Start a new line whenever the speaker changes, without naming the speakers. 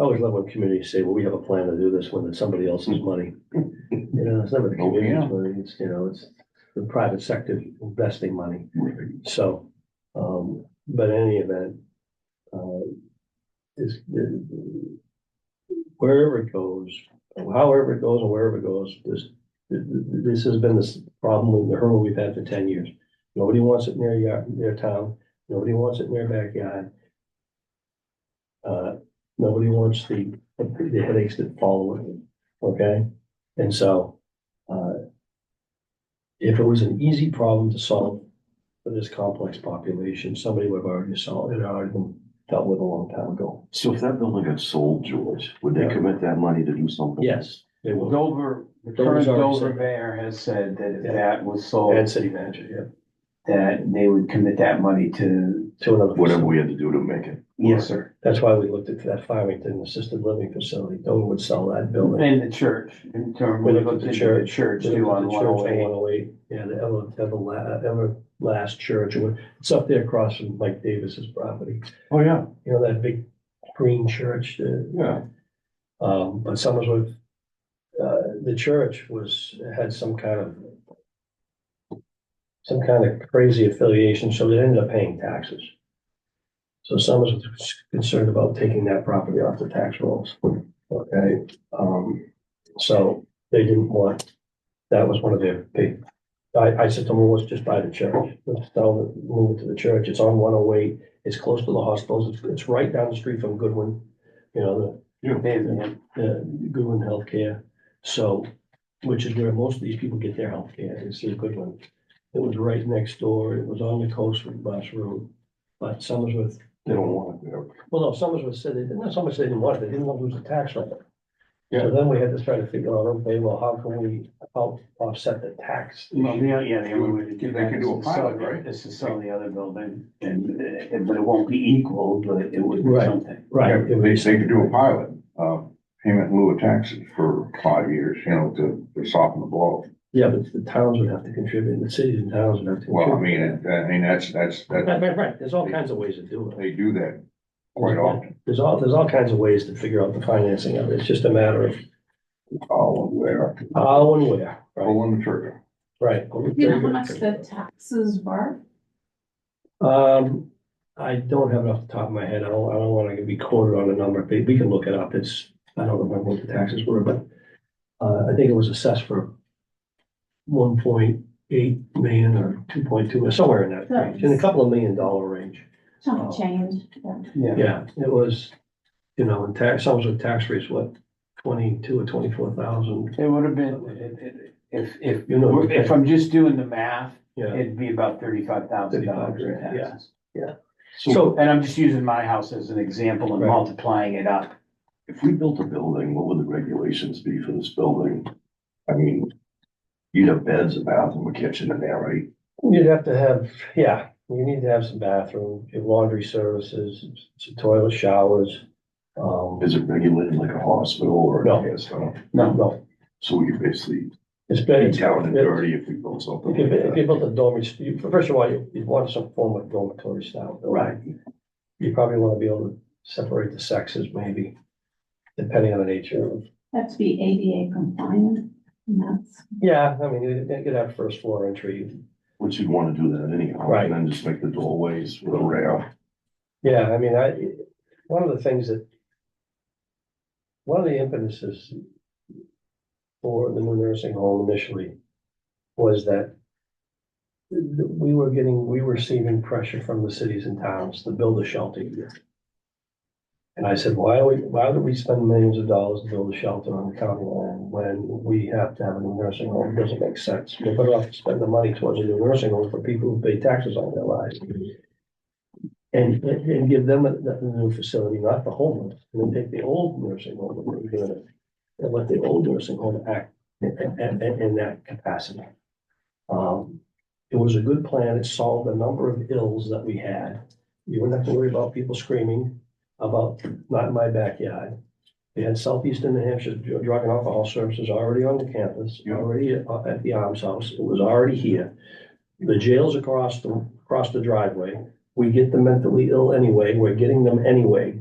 I always love when communities say, well, we have a plan to do this when it's somebody else's money. You know, it's never the
Oh, yeah.
community's money, it's, you know, it's the private sector investing money.
Right.
So, um, but in any event, uh, is, wherever it goes, however it goes and wherever it goes, this, this has been this problem, the hurdle we've had for ten years. Nobody wants it near your, their town, nobody wants it in their backyard. Uh, nobody wants the, the headaches that follow it, okay? And so, uh, if it was an easy problem to solve, for this complex population, somebody would have already solved it, already been dealt with a long time ago.
So if that building got sold, George, would they
Yeah.
commit that money to do something?
Yes, they will.
Dover, the
Dover's
current
already
Dover
said-
mayor has said that if
Yeah.
that was
And
sold,
city manager,
that they would commit that money to,
yeah, to another.
Whatever we had to do to make it.
yes, sir,
That's why we looked at that Farmington assisted living facility. Dover would sell that building.
and the church, in terms.
We looked at the church.
Church
They
too
looked at
on
the
one
church
oh
on
eight.
108, Yeah, the ever, ever, la- ever last church. or what- It's up there across from Mike Davis's property.
Oh, yeah,
You know, that big green church, uh,
yeah.
Um, but Somersworth, uh, the church was, had some kind of some kind of crazy affiliation, so they ended up paying taxes. So Somersworth was concerned about taking that property off the tax rolls, okay? Um, so they didn't want, that was one of their big, I, I said to them, well, let's just buy the church. Let's sell it, move it to the church. It's on one oh eight. It's close to the hospitals. It's, it's right down the street from Goodwin. You know, the
They-
uh, Goodwin Healthcare. So, which is where most of these people get their healthcare, is through Goodwin. It was right next door, it was on the coast from Bus Road, but Somersworth,
They don't want it there.
well, no, Somersworth said they didn't, not so much they didn't want it, they didn't want to lose the tax rate.
Yeah.
So then we had to try to figure out, okay, well, how can we out- offset the tax?
Well, yeah, yeah, the only way to do
They
that
could
is
do a
to sell,
pilot, right?
it- is to sell the other building, and, uh, but it won't be equal, but it would be
Right.
something.
Right.
Yeah, They, they could do a pilot, uh, payment in lieu of taxes for five years, you know, to, to soften the blow.
Yeah, but the towns would have to contribute, and the cities and towns would have to.
Well, I
contribute.
mean, it- I mean, that's, that's, that,
Right, right, right, there's all kinds of ways to do it.
they do that quite often.
There's all, there's all kinds of ways to figure out the financing of it, it's just a matter of
Oh, where,
how and where, right?
pulling the trigger.
Uh, Right.
You know how much the taxes were?
Um, I don't have it off the top of my head. I don't, I don't want to be quoted on a number. We, we can look it up. It's, I don't remember what the taxes were, but uh, I think it was assessed for one point eight million or two point two, or somewhere in that range, in a couple of million dollar range.
Chunk of change. yeah.
Yeah,
Yeah, it was, you know, and tax, some with tax rates, what, twenty-two or twenty-four thousand?
it would have been, it- it- if, if,
You know, okay.
if I'm just doing the math,
Yeah,
it'd be about thirty-five thousand dollars in
35, yeah.
taxes.
so,
And I'm just using my house as an example and
Right.
multiplying it up.
If we built a building, what would the regulations be for this building? I mean, you'd have beds, a bathroom, a kitchen in there, right?
You'd have to have, yeah, you need to have some bathroom, your laundry services, some toilet showers. Um,
Is it regulated like a hospital or? a
No.
gas station?
no, no,
So we could basically
it's
be
better.
down and
it-
dirty if we built something.
If you,
like
if you
that.
built a dormitory, you, first of all, you, you'd want some form of dormitory style. building.
Right.
You probably want to be able to separate the sexes maybe, depending on the nature of.
Have to be ADA compliant, and that's,
Yeah, I mean, you could have first floor entry.
Which you'd wanna do that anyhow,
Right.
and then just make the doorways with a rail.
Yeah, I mean, I, one of the things that, one of the impetuses for the new nursing home initially was that we were getting, we were receiving pressure from the cities and towns to build a shelter here. And I said, why are we, why do we spend millions of dollars to build a shelter on the county land when we have to have a new nursing home? It Doesn't make sense. We're better off to spend the money towards a new nursing home for people who pay taxes on their lives. And, and give them a, the new facility, not the homeless, and then take the old nursing home, and we're doing it, and let the old nursing home act in, in, in- in that capacity. Um, it was a good plan. It solved a number of ills that we had. You wouldn't have to worry about people screaming about not in my backyard. They had Southeastern New Hampshire Dr- Drug and Alcohol Services already on the campus,
Yeah.
already at- at the Arms House. It was already here. The jail's across the, across the driveway. We get the mentally ill anyway. We're getting them anyway.